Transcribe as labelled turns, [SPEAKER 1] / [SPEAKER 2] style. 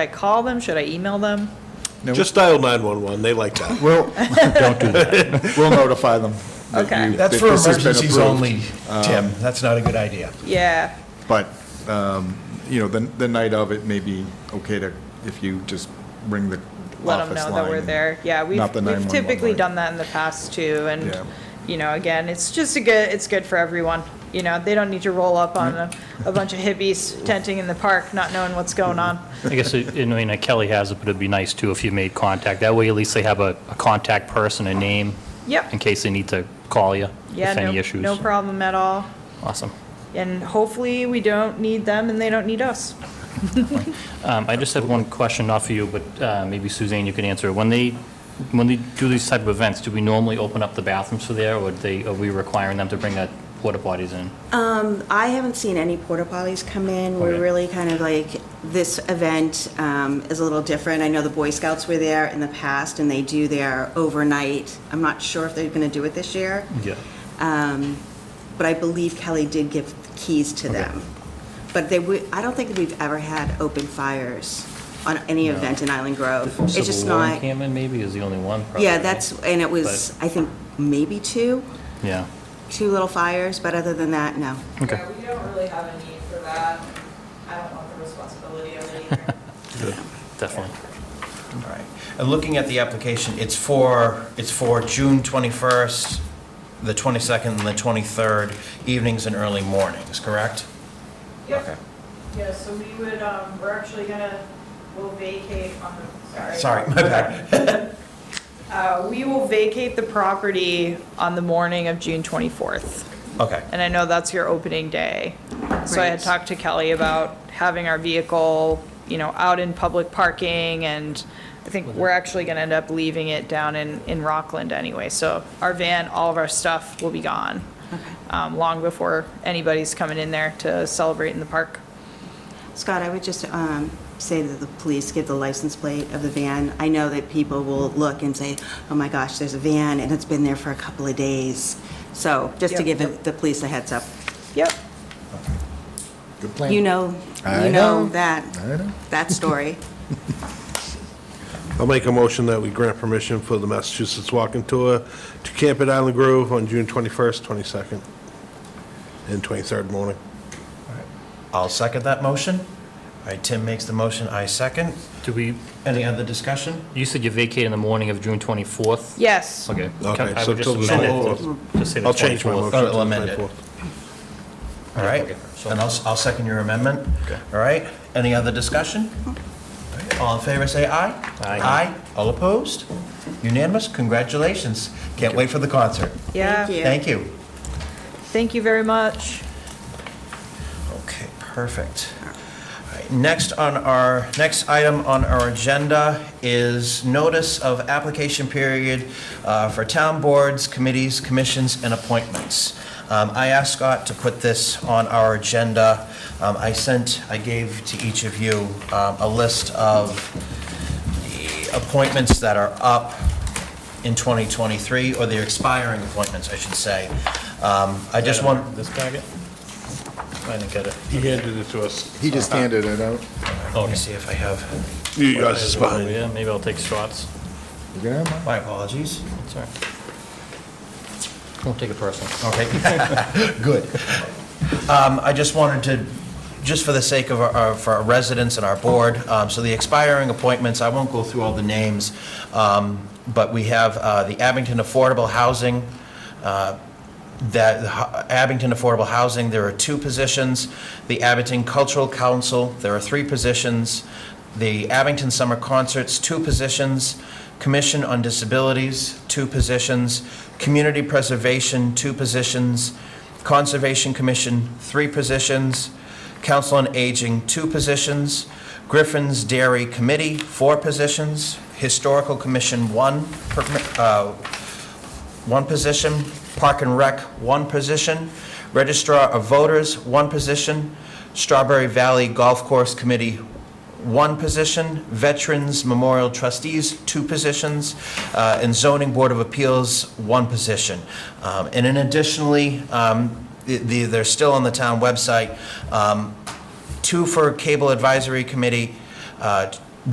[SPEAKER 1] I call them? Should I email them?
[SPEAKER 2] Just dial 911, they like that.
[SPEAKER 3] Well, don't do that. We'll notify them. that
[SPEAKER 1] Okay.
[SPEAKER 3] you-
[SPEAKER 4] That's
[SPEAKER 3] that
[SPEAKER 4] for
[SPEAKER 3] this has been
[SPEAKER 4] emergencies
[SPEAKER 3] approved.
[SPEAKER 4] only, Tim. That's not a good idea.
[SPEAKER 1] Yeah,
[SPEAKER 3] But, um, you know, the, the night of, it may be okay to, if you just ring the
[SPEAKER 1] let them
[SPEAKER 3] office
[SPEAKER 1] know that
[SPEAKER 3] line
[SPEAKER 1] we're
[SPEAKER 3] and-
[SPEAKER 1] there. Yeah, we've,
[SPEAKER 3] not the
[SPEAKER 1] we've
[SPEAKER 3] 911
[SPEAKER 1] typically
[SPEAKER 3] line.
[SPEAKER 1] done that in the past too, and,
[SPEAKER 3] Yeah.
[SPEAKER 1] you know, again, it's just a good, it's good for everyone. You know, they don't need to roll up on a,
[SPEAKER 3] Mm-hmm.
[SPEAKER 1] a bunch of hippies tenting in the park, not knowing what's going on.
[SPEAKER 5] I guess, uh, it- I mean, Kelly has it, but it'd be nice too if you made contact. That way at least they have a, a contact person, a name, in
[SPEAKER 1] Yep,
[SPEAKER 5] case they need to call you
[SPEAKER 1] yeah,
[SPEAKER 5] if any
[SPEAKER 1] no,
[SPEAKER 5] issues.
[SPEAKER 1] no problem at all.
[SPEAKER 5] Awesome.
[SPEAKER 1] And hopefully, we don't need them and they don't need us.
[SPEAKER 5] Um, I just have one question, not for you, but uh, maybe Suzanne, you can answer. When they, when they do these type of events, do we normally open up the bathrooms for there, or they, are we requiring them to bring that porta potties in?
[SPEAKER 6] Um, I haven't seen any porta potties come in. We're
[SPEAKER 5] Okay.
[SPEAKER 6] really kind of like, this event um, is a little different. I know the Boy Scouts were there in the past and they do their overnight. I'm not sure if they're going to do it this year,
[SPEAKER 5] Yeah.
[SPEAKER 6] but I believe Kelly did give keys to them. But they, would. I don't think we've ever had open fires on any event in Island Grove. It's just
[SPEAKER 5] Civil War
[SPEAKER 6] not,
[SPEAKER 5] encampment maybe is the only one. probably,
[SPEAKER 6] yeah,
[SPEAKER 5] right?
[SPEAKER 6] that's, and it was, I think, maybe two,
[SPEAKER 5] Yeah,
[SPEAKER 6] two little fires, but other than that, no.
[SPEAKER 5] Okay.
[SPEAKER 7] Yeah, we don't really have a need for that. I don't want the responsibility of it either.
[SPEAKER 5] definitely.
[SPEAKER 4] All right. And looking at the application, it's for, it's for June 21st, the 22nd, and the 23rd, evenings and early mornings, correct? Okay.
[SPEAKER 7] Yep, yeah, so we would, um, we're actually gonna, we'll vacate on the, sorry.
[SPEAKER 4] Sorry, my bad.
[SPEAKER 1] Uh, we will vacate the property on the morning of June 24th.
[SPEAKER 4] Okay.
[SPEAKER 1] And I know that's your opening day. So I had
[SPEAKER 6] Right.
[SPEAKER 1] talked to Kelly about having our vehicle, you know, out in public parking and I think we're actually gonna end up leaving it down in, in Rockland anyway. So our van, all of our stuff will be gone. Um, long before anybody's coming in there to celebrate in the park.
[SPEAKER 6] Scott, I would just um, say that the police give the license plate of the van. I know that people will look and say, oh my gosh, there's a van, and it's been there for a couple of days. So just to
[SPEAKER 1] Yep.
[SPEAKER 6] give the- the police a heads up.
[SPEAKER 1] Yep,
[SPEAKER 3] Good plan.
[SPEAKER 6] You know,
[SPEAKER 3] I
[SPEAKER 6] you know
[SPEAKER 3] know.
[SPEAKER 6] that,
[SPEAKER 3] I know.
[SPEAKER 6] that story.
[SPEAKER 2] I'll make a motion that we grant permission for the Massachusetts Walking Tour to camp at Island Grove on June 21st, 22nd, and 23rd morning.
[SPEAKER 4] I'll second that motion. All right, Tim makes the motion, I second.
[SPEAKER 5] Do we,
[SPEAKER 4] Any other discussion?
[SPEAKER 5] you said you vacate in the morning of June 24th?
[SPEAKER 1] yes.
[SPEAKER 5] Okay.
[SPEAKER 2] Okay,
[SPEAKER 5] I
[SPEAKER 2] so
[SPEAKER 5] would just
[SPEAKER 2] till the
[SPEAKER 5] amend it
[SPEAKER 2] 24th.
[SPEAKER 5] to- to say the
[SPEAKER 2] I'll change my
[SPEAKER 5] 24th.
[SPEAKER 2] motion.
[SPEAKER 4] Oh,
[SPEAKER 2] to the
[SPEAKER 4] amend it.
[SPEAKER 2] 24th.
[SPEAKER 4] All right, and I'll, I'll second your amendment.
[SPEAKER 5] Okay.
[SPEAKER 4] All right, any other discussion? All right, All in favor, say aye.
[SPEAKER 5] Aye.
[SPEAKER 4] Aye, all opposed? Unanimous, congratulations. Can't wait for the concert.
[SPEAKER 1] Yeah,
[SPEAKER 6] Thank you.
[SPEAKER 4] Thank you.
[SPEAKER 1] thank you very much.
[SPEAKER 4] Okay, perfect. All right, Next on our, next item on our agenda is notice of application period uh, for town boards, committees, commissions, and appointments. Um, I asked Scott to put this on our agenda. Um, I sent, I gave to each of you um, a list of the appointments that are up in 2023, or the expiring appointments, I should say. Um, I just want,
[SPEAKER 5] This packet? I didn't get it.
[SPEAKER 2] He handed it to us.
[SPEAKER 3] He just handed it out.
[SPEAKER 4] let me see if I have.
[SPEAKER 2] You guys is behind.
[SPEAKER 5] Yeah, maybe I'll take shots.
[SPEAKER 3] You can have mine.
[SPEAKER 4] My apologies.
[SPEAKER 5] It's all right. Don't take it personal.
[SPEAKER 4] Okay. Good. Um, I just wanted to, just for the sake of our- our, for our residents and our board, um, so the expiring appointments, I won't go through all the names, um, but we have uh, the Abington Affordable Housing, uh, that, the Ho- Abington Affordable Housing, there are two positions. The Abington Cultural Council, there are three positions. The Abington Summer Concerts, two positions. Commission on Disabilities, two positions. Community Preservation, two positions. Conservation Commission, three positions. Council on Aging, two positions. Griffin's Dairy Committee, four positions. Historical Commission, one, per- uh, one position. Park and Rec, one position. Registrar of Voters, one position. Strawberry Valley Golf Course Committee, one position. Veterans Memorial Trustees, two positions. Uh, And Zoning Board of Appeals, one position. Um, And then additionally, um, the- the- they're still on the town website, um, two for Cable Advisory Committee, uh,